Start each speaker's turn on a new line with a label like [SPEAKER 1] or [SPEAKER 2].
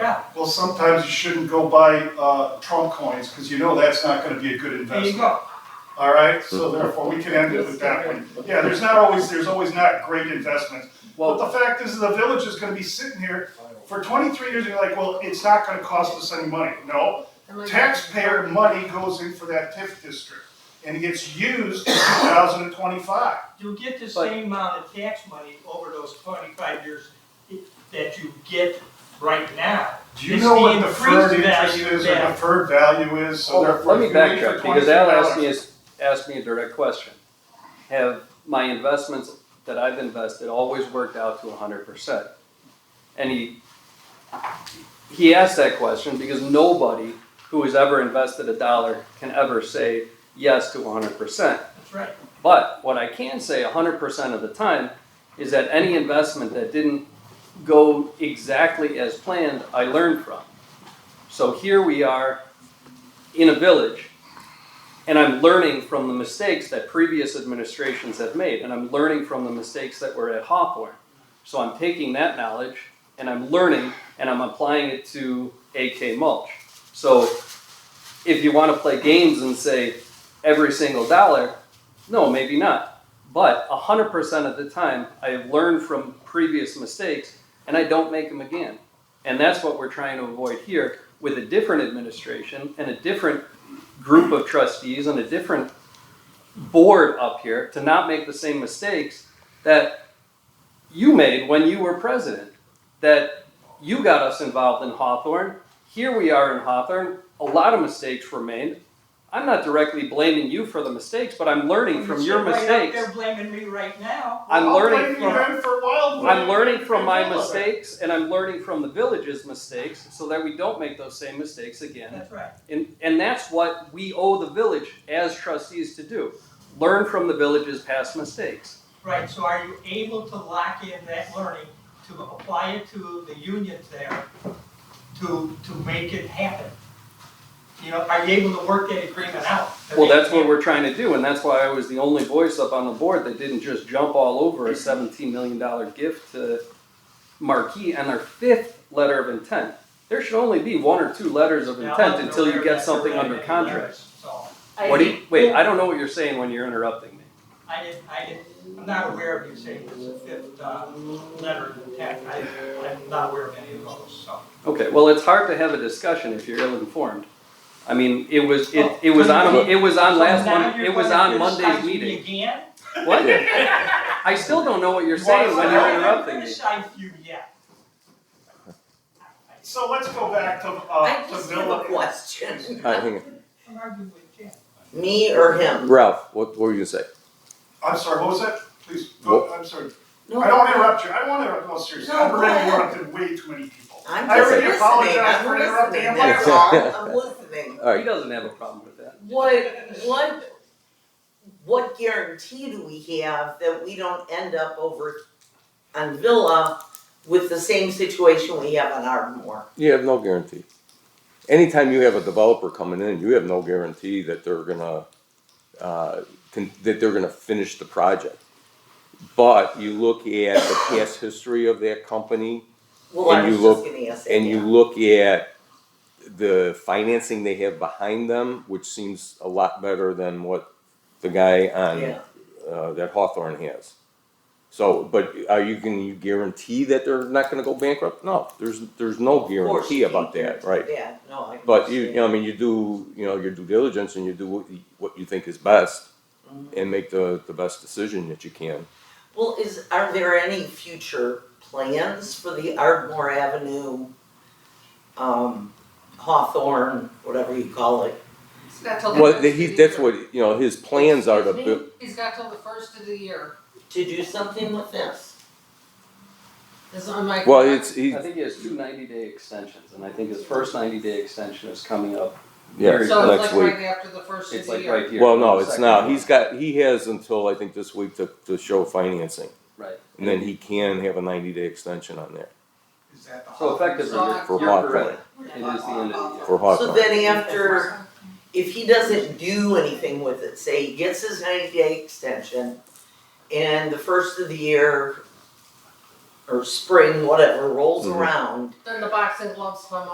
[SPEAKER 1] out.
[SPEAKER 2] Well, sometimes you shouldn't go buy uh, Trump coins because you know that's not going to be a good
[SPEAKER 1] There you
[SPEAKER 2] investment.
[SPEAKER 1] go.
[SPEAKER 2] All right, so therefore we can end it with that one. Yeah, there's not always, there's always not great investments. But
[SPEAKER 3] Well,
[SPEAKER 2] the fact is, the village is going to be sitting here for 23 years. And you're like, well, it's not going to cost us any money. No, taxpayer money goes in for that TIF district, and it gets used in 2025.
[SPEAKER 1] You'll get the
[SPEAKER 3] But-
[SPEAKER 1] same amount of tax money over those twenty-five years i- that you get right now.
[SPEAKER 2] Do you
[SPEAKER 1] It's
[SPEAKER 2] know
[SPEAKER 1] the
[SPEAKER 2] what deferred
[SPEAKER 1] increased
[SPEAKER 2] interest
[SPEAKER 1] value
[SPEAKER 2] is or
[SPEAKER 1] that-
[SPEAKER 2] deferred value is? So
[SPEAKER 3] well,
[SPEAKER 2] therefore,
[SPEAKER 3] let me
[SPEAKER 2] if you wait
[SPEAKER 3] backtrack
[SPEAKER 2] for
[SPEAKER 3] because Al asked
[SPEAKER 2] $23
[SPEAKER 3] me, a- asked me a direct question. Have my investments that I've invested always worked out to hundred percent? And he, he asked that question because nobody who has ever invested a dollar can ever say yes to hundred percent.
[SPEAKER 1] That's right.
[SPEAKER 3] But what I can say 100% of the time is that any investment that didn't go exactly as planned, I learned from. So here we are in a village, and I'm learning from the mistakes that previous administrations have made, and I'm learning from the mistakes that were at Hawthorne. So I'm taking that knowledge and I'm learning and I'm applying it to AK mulch. So if you want to play games and say every single dollar, no, maybe not. But 100% of the time, I have learned from previous mistakes and I don't make them again. And that's what we're trying to avoid here with a different administration and a different group of trustees and a different board up here to not make the same mistakes that you made when you were president, that you got us involved in Hawthorne. Here we are in Hawthorne. A lot of mistakes were made. I'm not directly blaming you for the mistakes, but I'm learning from your
[SPEAKER 1] You sit right up
[SPEAKER 3] mistakes.
[SPEAKER 1] there blaming me right now.
[SPEAKER 3] I'm
[SPEAKER 2] I'll
[SPEAKER 3] learning
[SPEAKER 2] blame you
[SPEAKER 3] from-
[SPEAKER 2] then for wildfire.
[SPEAKER 3] I'm learning from my
[SPEAKER 2] You're welcome.
[SPEAKER 3] mistakes and I'm learning from the village's mistakes so that we don't make those same mistakes again.
[SPEAKER 1] That's right.
[SPEAKER 3] And, and that's what we owe the village as trustees to do. Learn from the village's past mistakes.
[SPEAKER 1] Right, so are you able to lock in that learning to apply it to the unions there to, to make it happen? You know, are you able to work that agreement out? to
[SPEAKER 3] Well,
[SPEAKER 1] make
[SPEAKER 3] that's
[SPEAKER 1] it
[SPEAKER 3] what we're trying to do and that's why I was the only voice up on the board that didn't just jump all over a seventeen million dollar gift to Marquee on their fifth letter of intent. There should only be one or two letters of
[SPEAKER 1] happen? Now, I
[SPEAKER 3] intent
[SPEAKER 1] wasn't
[SPEAKER 3] until
[SPEAKER 1] aware
[SPEAKER 3] you get
[SPEAKER 1] that
[SPEAKER 3] something
[SPEAKER 1] there were
[SPEAKER 3] under
[SPEAKER 1] any
[SPEAKER 3] contract.
[SPEAKER 1] letters, So,
[SPEAKER 3] What do you, wait, I don't know what you're saying when you're interrupting me.
[SPEAKER 1] I didn't, I didn't, I'm not aware of you saying it's a fifth, uh, letter of intent, I, I'm not aware of any of those, so.
[SPEAKER 3] Okay, well, it's hard to have a discussion if you're ill-informed. I mean, it was, it, it was on, it was on last
[SPEAKER 1] Oh. So now
[SPEAKER 3] one,
[SPEAKER 1] you're
[SPEAKER 3] it was
[SPEAKER 1] gonna
[SPEAKER 3] on Monday's
[SPEAKER 1] criticize me
[SPEAKER 3] meeting.
[SPEAKER 1] Again?
[SPEAKER 3] What? I still don't know what you're
[SPEAKER 2] You wanna
[SPEAKER 3] saying when
[SPEAKER 2] say
[SPEAKER 3] you're
[SPEAKER 2] I-
[SPEAKER 3] interrupting
[SPEAKER 1] I
[SPEAKER 3] me.
[SPEAKER 1] haven't criticized you yet.
[SPEAKER 2] So let's go back to, uh,
[SPEAKER 4] I
[SPEAKER 2] to
[SPEAKER 4] just have a
[SPEAKER 2] Villa.
[SPEAKER 4] question.
[SPEAKER 5] All right, hang on.
[SPEAKER 1] I'm arguing with Ken.
[SPEAKER 4] Me or him?
[SPEAKER 5] Ralph, what, what were you gonna say?
[SPEAKER 2] I'm sorry, what was that? Please, go, I'm sorry.
[SPEAKER 4] No,
[SPEAKER 2] I don't wanna interrupt you, I don't wanna interrupt, no, seriously,
[SPEAKER 4] No,
[SPEAKER 2] I've
[SPEAKER 4] go
[SPEAKER 2] already
[SPEAKER 4] ahead.
[SPEAKER 2] interrupted way too many people.
[SPEAKER 4] I'm
[SPEAKER 2] I
[SPEAKER 4] just
[SPEAKER 2] already
[SPEAKER 4] listening,
[SPEAKER 2] apologized
[SPEAKER 4] I'm
[SPEAKER 2] for interrupting.
[SPEAKER 4] listening,
[SPEAKER 2] I'm
[SPEAKER 4] that's
[SPEAKER 5] like-
[SPEAKER 4] all, I'm listening.
[SPEAKER 5] All
[SPEAKER 3] He
[SPEAKER 5] right,
[SPEAKER 3] doesn't have a problem with that.
[SPEAKER 4] What, what, what guarantee do we have that we don't end up over on Villa with the same situation we have on Ardmore?
[SPEAKER 5] you have no guarantee. Anytime you have a developer coming in, you have no guarantee that they're gonna, uh, con- that they're gonna finish the project. But you look at the past history of that company,
[SPEAKER 4] Well, I was
[SPEAKER 5] And you
[SPEAKER 4] just
[SPEAKER 5] look-
[SPEAKER 4] gonna ask that.
[SPEAKER 5] and you look at the financing they have behind them, which seems a lot better than what the guy on,
[SPEAKER 4] Yeah,
[SPEAKER 5] uh, that Hawthorne has. So, but are you, can you guarantee that they're not gonna go bankrupt? No, there's, there's no
[SPEAKER 4] of course,
[SPEAKER 5] guarantee
[SPEAKER 4] you
[SPEAKER 5] about
[SPEAKER 4] can't-
[SPEAKER 5] that, right?
[SPEAKER 4] Yeah, no, I.
[SPEAKER 5] But you, you
[SPEAKER 4] understand.
[SPEAKER 5] know, I mean, you do, you know, your due diligence and you do what you, what you think is best and make the, the best decision that you can.
[SPEAKER 4] Well, is, are there any future plans for the Ardmore Avenue, um, Hawthorne, whatever you call it?
[SPEAKER 6] He's got till the
[SPEAKER 5] Well,
[SPEAKER 6] first
[SPEAKER 5] that-
[SPEAKER 6] of
[SPEAKER 5] he's,
[SPEAKER 6] the
[SPEAKER 5] that's
[SPEAKER 6] year.
[SPEAKER 5] what, you know, his plans are to,
[SPEAKER 6] Excuse me?
[SPEAKER 5] bu-
[SPEAKER 6] He's got till the first of the year,
[SPEAKER 4] to do something with this.
[SPEAKER 6] is on my.
[SPEAKER 5] well, it's, he,
[SPEAKER 3] I think he has two 90-day extensions, and I think his first 90-day extension is coming up.
[SPEAKER 5] yeah,
[SPEAKER 3] very
[SPEAKER 6] So
[SPEAKER 5] next
[SPEAKER 6] it's like
[SPEAKER 5] week.
[SPEAKER 6] right after the first of
[SPEAKER 3] It's
[SPEAKER 6] the
[SPEAKER 3] like
[SPEAKER 6] year.
[SPEAKER 3] right here.
[SPEAKER 5] Well, no, it's
[SPEAKER 3] Second
[SPEAKER 5] not.
[SPEAKER 3] one.
[SPEAKER 5] He's got, he has until, I think, this week to, to show financing.
[SPEAKER 3] Right.
[SPEAKER 5] And then he can have a ninety day extension on there
[SPEAKER 1] Is that the?
[SPEAKER 3] So effectively, you're
[SPEAKER 5] for
[SPEAKER 3] you're
[SPEAKER 5] Hawthorne,
[SPEAKER 3] correct. It is the end of the year.
[SPEAKER 4] So
[SPEAKER 5] for Hawthorne.
[SPEAKER 4] then after, if he doesn't do anything with it, say he gets his ninety day extension and the first of the year
[SPEAKER 7] or spring, whatever, rolls
[SPEAKER 8] Mhm.
[SPEAKER 7] around,
[SPEAKER 4] Then the boxing gloves come